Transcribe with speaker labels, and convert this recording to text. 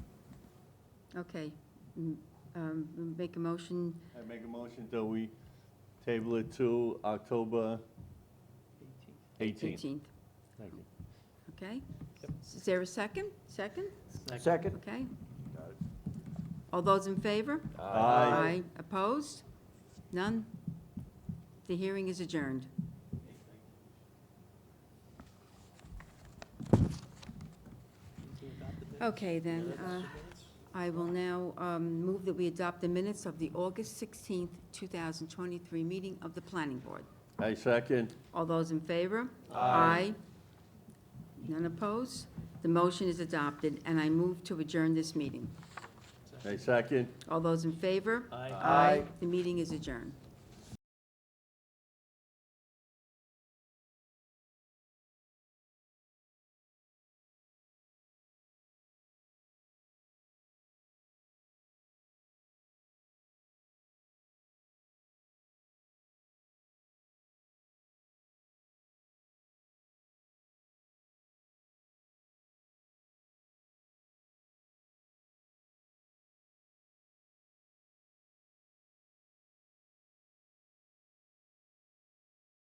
Speaker 1: Okay. M- um, Make a motion,
Speaker 2: I make a motion that we table it to October 18th.
Speaker 1: 18th,
Speaker 2: Thank you.
Speaker 1: okay? Is there a second? Second?
Speaker 3: Second?
Speaker 1: Okay. All those in favor?
Speaker 2: Aye.
Speaker 1: Opposed? None? The hearing is adjourned. Okay, then, uh, I will now um, move that we adopt the minutes of the August 16th, 2023 meeting of the Planning Board.
Speaker 2: I second.
Speaker 1: All those in favor? Aye. None opposed? The motion is adopted, and I move to adjourn this meeting.
Speaker 2: I second.
Speaker 1: All those in favor?
Speaker 3: Aye.
Speaker 1: The meeting is adjourned.